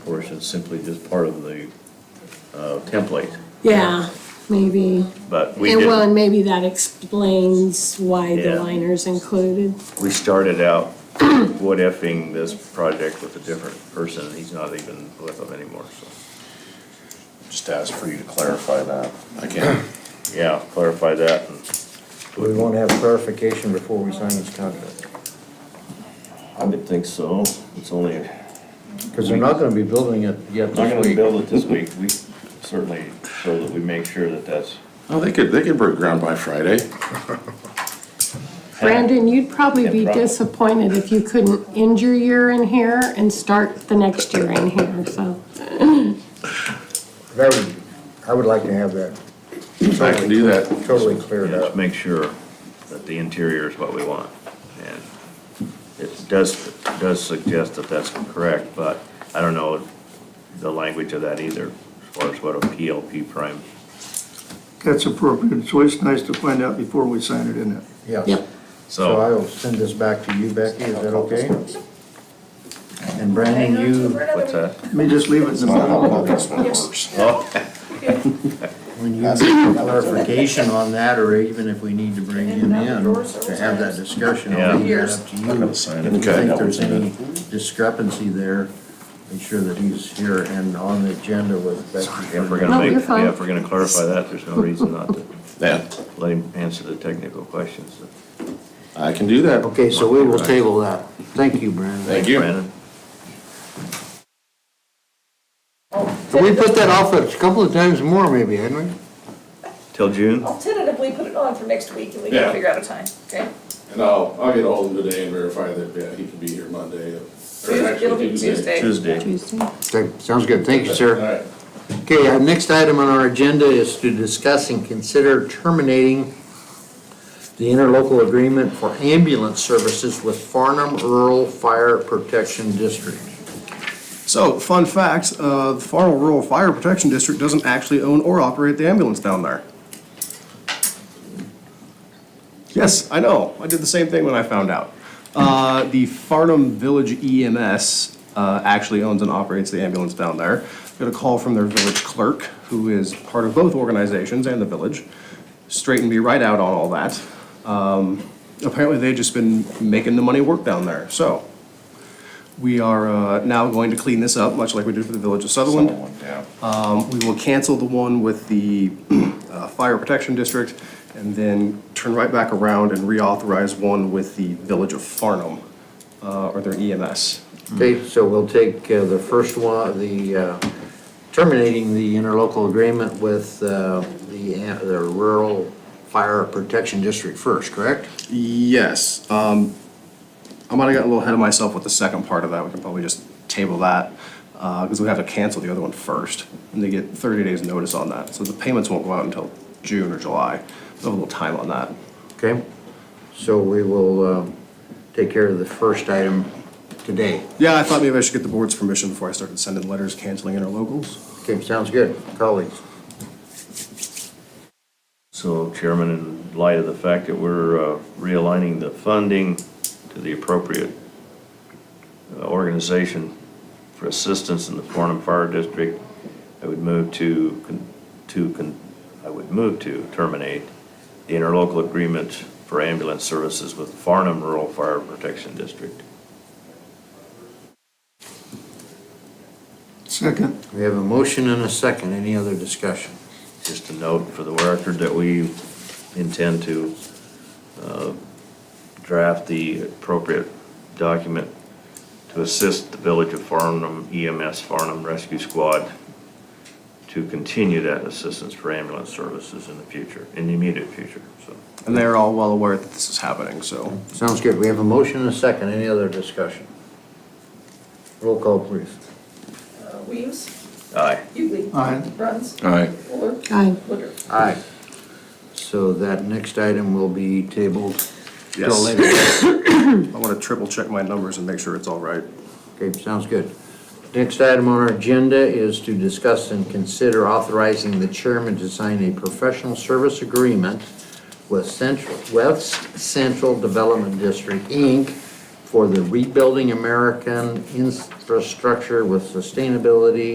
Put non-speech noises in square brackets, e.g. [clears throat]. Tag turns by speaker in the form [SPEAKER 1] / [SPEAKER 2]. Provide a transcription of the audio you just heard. [SPEAKER 1] portion is simply just part of the uh, template,
[SPEAKER 2] Yeah, maybe.
[SPEAKER 1] but we
[SPEAKER 2] And well, and
[SPEAKER 1] did,
[SPEAKER 2] maybe that explains why the
[SPEAKER 1] Yeah.
[SPEAKER 2] liner's included.
[SPEAKER 1] we started out [clears throat] what effing this project with a different person, and he's not even with them anymore, so.
[SPEAKER 3] Just ask for you to clarify that. I can't.
[SPEAKER 1] [clears throat] Yeah, clarify that, and
[SPEAKER 4] We want to have clarification before we sign this contract,
[SPEAKER 1] I would think so, it's only, not
[SPEAKER 4] because they're not going to be building it yet
[SPEAKER 1] gonna
[SPEAKER 4] this
[SPEAKER 1] be
[SPEAKER 4] week.
[SPEAKER 1] build it this week, we certainly, so that we make sure that that's.
[SPEAKER 3] Oh, they could, they could break ground by Friday.
[SPEAKER 2] Brandon, you'd probably
[SPEAKER 1] Yeah,
[SPEAKER 2] be
[SPEAKER 1] probably.
[SPEAKER 2] disappointed if you couldn't end your year in here and start the next year in here, so.
[SPEAKER 4] That would, I would like to have that
[SPEAKER 3] I can do that.
[SPEAKER 4] totally cleared
[SPEAKER 1] Just
[SPEAKER 4] up.
[SPEAKER 1] make sure that the interior is what we want. And it does, does suggest that that's correct, but I don't know the language of that either, as far as what a PLP prime.
[SPEAKER 5] That's appropriate. It's always nice to find out before we sign it, isn't it?
[SPEAKER 4] Yes.
[SPEAKER 2] Yep.
[SPEAKER 4] So I
[SPEAKER 1] So,
[SPEAKER 4] will send this back to you, Becky, is that okay? And Brandon, you,
[SPEAKER 1] what's that?
[SPEAKER 5] Let me just leave it in the
[SPEAKER 3] Not how
[SPEAKER 5] middle.
[SPEAKER 3] well this one works.
[SPEAKER 1] Oh,
[SPEAKER 4] when you need clarification on that, or even if we need to bring him in to have that discussion, I'll leave that up to you. If you
[SPEAKER 3] Okay.
[SPEAKER 4] think there's any discrepancy there, make sure that he's here and on the agenda with Becky.
[SPEAKER 1] If we're
[SPEAKER 2] No,
[SPEAKER 1] gonna make,
[SPEAKER 2] you're fine.
[SPEAKER 1] yeah, if we're gonna clarify that, there's no reason not to
[SPEAKER 3] Yeah,
[SPEAKER 1] let him answer the technical questions.
[SPEAKER 3] I can do that.
[SPEAKER 4] Okay, so we will table that. Thank you, Brandon.
[SPEAKER 3] Thank you.
[SPEAKER 1] Brandon,
[SPEAKER 4] Can we put that off a couple of times more maybe, hadn't we?
[SPEAKER 1] till June?
[SPEAKER 6] I'll tentatively put it on for next week and we
[SPEAKER 7] Yeah.
[SPEAKER 6] can figure out a time, okay?
[SPEAKER 7] And I'll, I'll get hold of him today and verify that, yeah, he can be here Monday, or
[SPEAKER 6] It'll
[SPEAKER 7] actually
[SPEAKER 6] be
[SPEAKER 7] Tuesday.
[SPEAKER 6] Tuesday.
[SPEAKER 1] Tuesday.
[SPEAKER 4] Okay, sounds good. Thank you,
[SPEAKER 7] All
[SPEAKER 4] sir.
[SPEAKER 7] right.
[SPEAKER 4] Okay, our next item on our agenda is to discuss and consider terminating the interlocal agreement for ambulance services with Farnham Rural Fire Protection District.
[SPEAKER 8] So, fun facts, uh, the Farnell Rural Fire Protection District doesn't actually own or operate the ambulance down there. Yes, I know, I did the same thing when I found out. Uh, the Farnham Village EMS, uh, actually owns and operates the ambulance down there. Got a call from their village clerk, who is part of both organizations and the village, straightened me right out on all that. Um, apparently they've just been making the money work down there, so. We are uh, now going to clean this up, much like we did for the Village of Sutherland.
[SPEAKER 3] Yeah.
[SPEAKER 8] Um, We will cancel the one with the uh, Fire Protection District and then turn right back around and reauthorize one with the Village of Farnham uh, or their EMS.
[SPEAKER 4] Okay, so we'll take uh, the first one, the uh, terminating the interlocal agreement with uh, the uh, the Rural Fire Protection District first, correct?
[SPEAKER 8] Yes, um, I might have gotten a little ahead of myself with the second part of that. We can probably just table that because we have to cancel the other one first. And they get 30 days' notice on that. So the payments won't go out until June or July. So a little time on that.
[SPEAKER 4] Okay, so we will uh, take care of the first item today.
[SPEAKER 8] Yeah, I thought maybe I should get the board's permission before I started sending letters canceling interlocals.
[SPEAKER 4] Okay, sounds good, colleagues.
[SPEAKER 1] So Chairman, in light of the fact that we're uh, realigning the funding to the appropriate uh, organization for assistance in the Farnham Fire District, I would move to, con- to, con- I would move to terminate the interlocal agreement for ambulance services with Farnham Rural Fire Protection District.
[SPEAKER 5] Second.
[SPEAKER 4] We have a motion and a second, any other discussion?
[SPEAKER 1] Just a note for the record that we intend to uh, draft the appropriate document to assist the Village of Farnham EMS Farnham Rescue Squad to continue that assistance for ambulance services in the future, in the immediate future, so.
[SPEAKER 8] And they're all well aware that this is happening, so.
[SPEAKER 4] Sounds good, we have a motion and a second, any other discussion? Roll call, please.
[SPEAKER 6] Uh, Weems,
[SPEAKER 1] Aye.
[SPEAKER 6] Hughley.
[SPEAKER 5] Aye.
[SPEAKER 6] Bruns.
[SPEAKER 3] All right.
[SPEAKER 6] Fuller.
[SPEAKER 2] Aye.
[SPEAKER 6] Woodruff.
[SPEAKER 4] Aye. So that next item will be tabled till
[SPEAKER 8] Yes.
[SPEAKER 4] later.
[SPEAKER 8] [coughs] I want to triple check my numbers and make sure it's all right.
[SPEAKER 4] Okay, sounds good. Next item on our agenda is to discuss and consider authorizing the chairman to sign a professional service agreement with Central, West Central Development District, Inc., for the Rebuilding American Infrastructure with Sustainability